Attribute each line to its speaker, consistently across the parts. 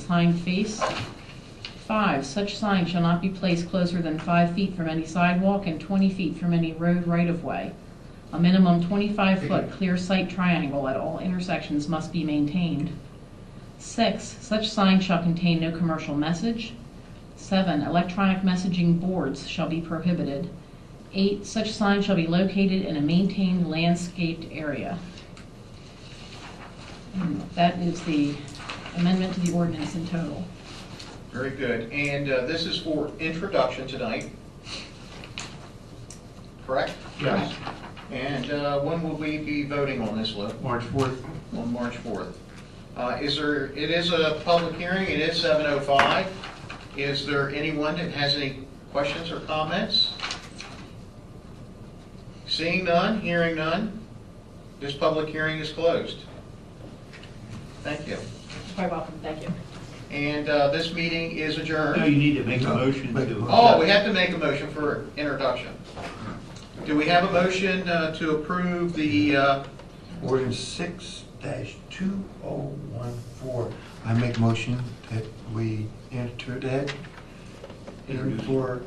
Speaker 1: sign face. Five, such sign shall not be placed closer than five feet from any sidewalk and twenty feet from any road right-of-way. A minimum twenty-five foot clear sight triangle at all intersections must be maintained. Six, such sign shall contain no commercial message. Seven, electronic messaging boards shall be prohibited. Eight, such sign shall be located in a maintained landscaped area. And That is the amendment to the ordinance in total.
Speaker 2: Very good. And uh, this is for introduction tonight, correct?
Speaker 3: Yes,
Speaker 2: And uh, when will we be voting on this, Lou?
Speaker 3: March 4th.
Speaker 2: On March 4th. Uh, Is there, it is a public hearing, it is 7:05. Is there anyone that has any questions or comments? Seeing none, hearing none, this public hearing is closed. Thank you.
Speaker 1: You're welcome, thank you.
Speaker 2: And uh, this meeting is adjourned.
Speaker 4: No, you need to make a motion to.
Speaker 2: Oh, we have to make a motion for introduction. Do we have a motion uh, to approve the, uh,
Speaker 4: Ordinance six dash two oh one four. I make motion that we enter that in
Speaker 3: Introduce.
Speaker 4: for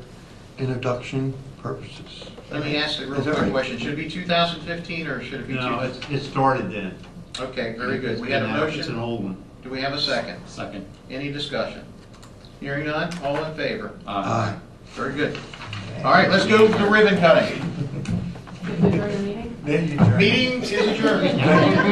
Speaker 4: introduction purposes.
Speaker 2: let me ask a real
Speaker 4: Is that
Speaker 2: quick
Speaker 4: right?
Speaker 2: question, should it be 2015 or should it be
Speaker 3: No,
Speaker 2: 2000?
Speaker 3: it's- it started then.
Speaker 2: Okay, very good, we had a
Speaker 3: It's an
Speaker 2: motion,
Speaker 3: old one.
Speaker 2: do we have a second?
Speaker 5: Second.
Speaker 2: Any discussion? Hearing none, all in favor?
Speaker 4: Aye.
Speaker 2: Very good. All right, let's go to ribbon cutting.
Speaker 1: Did we adjourn the meeting?
Speaker 4: Then you adjourn.
Speaker 2: Meeting is adjourned.